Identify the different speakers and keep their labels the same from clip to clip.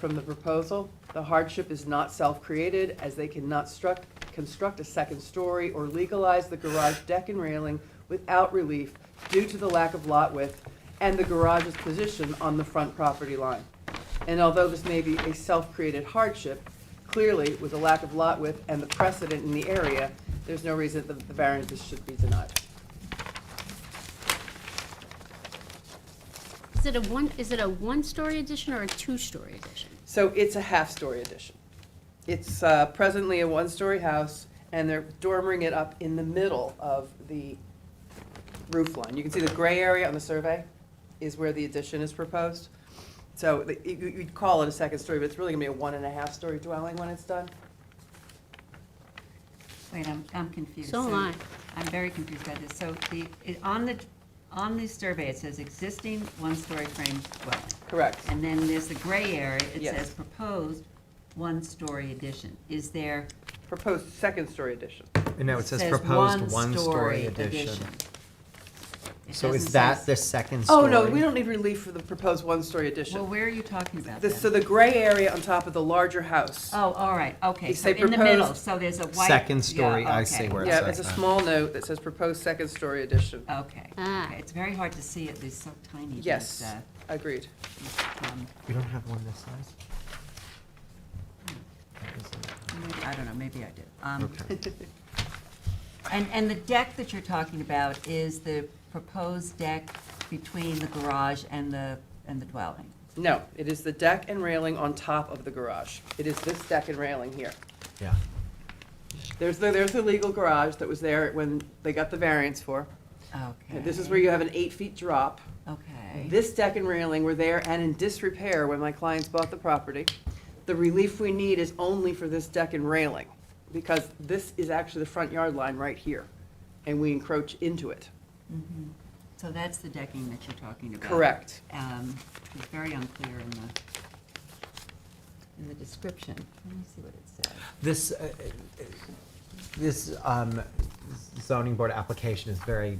Speaker 1: from the proposal. The hardship is not self-created, as they cannot struct, construct a second story or legalize the garage deck and railing without relief due to the lack of lot width and the garage's position on the front property line. And although this may be a self-created hardship, clearly, with the lack of lot width and the precedent in the area, there's no reason that the variances should be denied.
Speaker 2: Is it a one, is it a one-story addition or a two-story addition?
Speaker 1: So it's a half-story addition. It's uh, presently a one-story house, and they're dormering it up in the middle of the roof line. You can see the gray area on the survey is where the addition is proposed. So the- you- you- you'd call it a second story, but it's really gonna be a one-and-a-half-story dwelling when it's done.
Speaker 3: Wait, I'm, I'm confused.
Speaker 2: So am I.
Speaker 3: I'm very confused by this. So the, it, on the, on the survey, it says existing one-story frame dwelling.
Speaker 1: Correct.
Speaker 3: And then there's the gray area, it
Speaker 1: Yes.
Speaker 3: says proposed one-story addition. Is there?
Speaker 1: Proposed second-story addition.
Speaker 4: And now it says proposed one-story addition.
Speaker 3: It
Speaker 4: So is
Speaker 3: doesn't
Speaker 4: that
Speaker 3: say-
Speaker 4: the second story?
Speaker 1: Oh, no, we don't need relief for the proposed one-story
Speaker 3: Well,
Speaker 1: addition.
Speaker 3: where are you talking about
Speaker 1: The-
Speaker 3: then?
Speaker 1: So the gray area on top of the larger house.
Speaker 3: Oh, all right, okay,
Speaker 1: They
Speaker 3: so
Speaker 1: say
Speaker 3: in the middle,
Speaker 1: proposed-
Speaker 3: so there's a white.
Speaker 4: Second
Speaker 3: yeah,
Speaker 4: story, I see
Speaker 3: okay.
Speaker 4: where
Speaker 1: Yeah, it's a
Speaker 4: Sorry.
Speaker 1: small note that says proposed second-story addition.
Speaker 3: Okay,
Speaker 2: Ah.
Speaker 3: okay, it's very hard to see it, it's so tiny. these,
Speaker 1: Yes,
Speaker 3: uh,
Speaker 1: agreed.
Speaker 3: um,
Speaker 4: We don't have one this size? That is it.
Speaker 3: maybe- I don't know, maybe I did. Um,
Speaker 4: Okay.
Speaker 3: And, and the deck that you're talking about is the proposed deck between the garage and the, and the dwelling?
Speaker 1: No, it is the deck and railing on top of the garage. It is this deck and railing here.
Speaker 4: Yeah.
Speaker 1: There's the, there's the legal garage that was there when they got the variance for.
Speaker 3: Okay.
Speaker 1: This is where you have an eight-feet drop.
Speaker 3: Okay,
Speaker 1: This deck and railing were there and in disrepair when my clients bought the property. The relief we need is only for this deck and railing, because this is actually the front yard line right here, and we encroach into it.
Speaker 3: Mm-hmm. so that's the decking that you're talking about?
Speaker 1: Correct.
Speaker 3: Um, It's very unclear in the, in the description. Let me see what it says.
Speaker 4: This, uh, uh, this um, zoning board application is very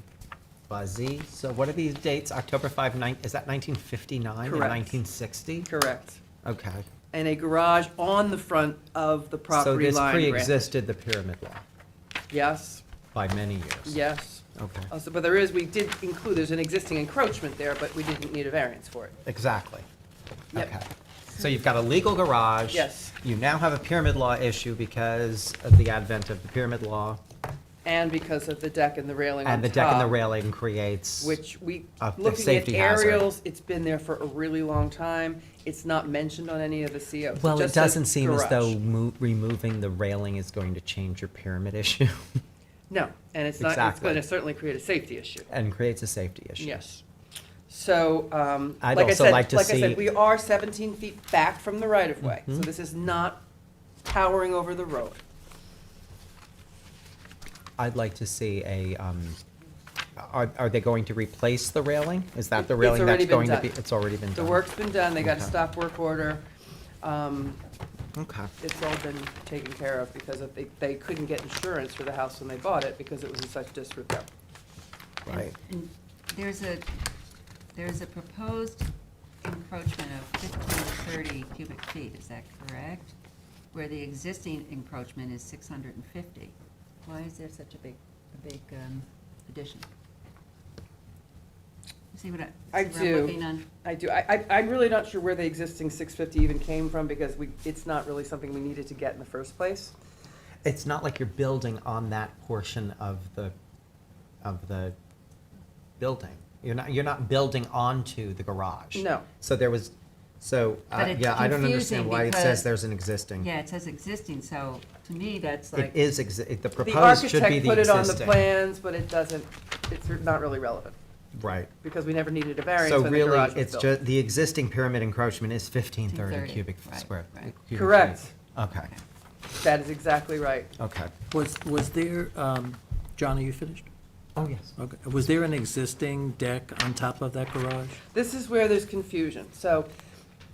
Speaker 4: buzzy. So what are these dates? October 5, nine- is that 1959 and
Speaker 1: Correct.
Speaker 4: 1960?
Speaker 1: Correct.
Speaker 4: Okay.
Speaker 1: And a garage on the front of the property line.
Speaker 4: So this
Speaker 1: granted.
Speaker 4: pre-existed the pyramid law
Speaker 1: Yes,
Speaker 4: by many years?
Speaker 1: yes.
Speaker 4: Okay,
Speaker 1: Also, but there is, we did include, there's an existing encroachment there, but we didn't need a variance for it.
Speaker 4: exactly.
Speaker 1: Yep.
Speaker 4: Okay. So you've got a legal garage.
Speaker 1: Yes.
Speaker 4: You now have a pyramid law issue because of the advent of the pyramid law.
Speaker 1: And because of the deck and the railing on top.
Speaker 4: And the deck and the railing creates.
Speaker 1: Which we,
Speaker 4: A- a
Speaker 1: looking at
Speaker 4: safety hazard.
Speaker 1: aerials, it's been there for a really long time. It's not mentioned on any of the COs. It
Speaker 4: Well, it
Speaker 1: just says
Speaker 4: doesn't seem as though
Speaker 1: garage.
Speaker 4: mo- removing the railing is going to change your pyramid issue
Speaker 1: No, and it's not, it's
Speaker 4: Exactly.
Speaker 1: going to certainly create a safety issue.
Speaker 4: and creates a safety issue.
Speaker 1: Yes. So, um,
Speaker 4: I'd
Speaker 1: like I
Speaker 4: also
Speaker 1: said,
Speaker 4: like
Speaker 1: like
Speaker 4: to
Speaker 1: I said,
Speaker 4: see- Mm-hmm.
Speaker 1: we are seventeen feet back from the right of way. So this is not towering over the road.
Speaker 4: I'd like to see a, um, are, are they going to replace the railing? Is that the
Speaker 1: It's
Speaker 4: railing
Speaker 1: already
Speaker 4: that's
Speaker 1: been
Speaker 4: going to
Speaker 1: done.
Speaker 4: be? It's already been
Speaker 1: The
Speaker 4: done.
Speaker 1: work's been done, they got a
Speaker 4: Okay.
Speaker 1: stop work order. Um,
Speaker 4: Okay.
Speaker 1: It's all been taken care of because of, they, they couldn't get insurance for the house when they bought it because it was in such disrepair.
Speaker 4: Right.
Speaker 3: And There's a, there's a proposed encroachment of fifteen thirty cubic feet, is that correct? Where the existing encroachment is six hundred and fifty. Why is there such a big, a big um, addition? You See what I,
Speaker 1: I
Speaker 3: see what I'm
Speaker 1: do.
Speaker 3: looking on?
Speaker 1: I do, I, I, I'm really not sure where the existing six fifty even came from because we, it's not really something we needed to get in the first place.
Speaker 4: It's not like you're building on that portion of the, of the building. You're not, you're not building onto the garage.
Speaker 1: No.
Speaker 4: So there was, so,
Speaker 3: But
Speaker 4: uh,
Speaker 3: it's
Speaker 4: yeah, I don't understand
Speaker 3: confusing
Speaker 4: why it
Speaker 3: because-
Speaker 4: says there's an existing.
Speaker 3: Yeah, it says existing, so to me, that's
Speaker 4: It
Speaker 3: like,
Speaker 4: is, exi-
Speaker 1: The
Speaker 4: the proposed should be
Speaker 1: architect
Speaker 4: the
Speaker 1: put it on the
Speaker 4: existing.
Speaker 1: plans, but it doesn't, it's not really relevant
Speaker 4: Right.
Speaker 1: because we never needed a variance
Speaker 4: So
Speaker 1: when the
Speaker 4: really,
Speaker 1: garage was
Speaker 4: it's
Speaker 1: built.
Speaker 4: just, the existing pyramid encroachment is fifteen
Speaker 3: 1530,
Speaker 4: thirty cubic
Speaker 3: right,
Speaker 4: square.
Speaker 3: right.
Speaker 4: cubic feet.
Speaker 1: Correct.
Speaker 4: Okay,
Speaker 1: That is exactly right.
Speaker 4: okay.
Speaker 5: Was, was there, um, John, are you finished?
Speaker 4: Oh, yes.
Speaker 5: Okay, was there an existing deck on top of that garage?
Speaker 1: This is where there's confusion. So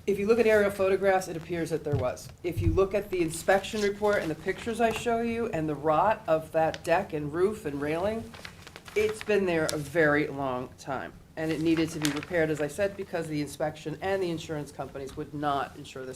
Speaker 1: if you look at aerial photographs, it appears that there was. If you look at the inspection report and the pictures I show you and the rot of that deck and roof and railing, it's been there a very long time. And it needed to be repaired, as I said, because the inspection and the insurance companies would not insure this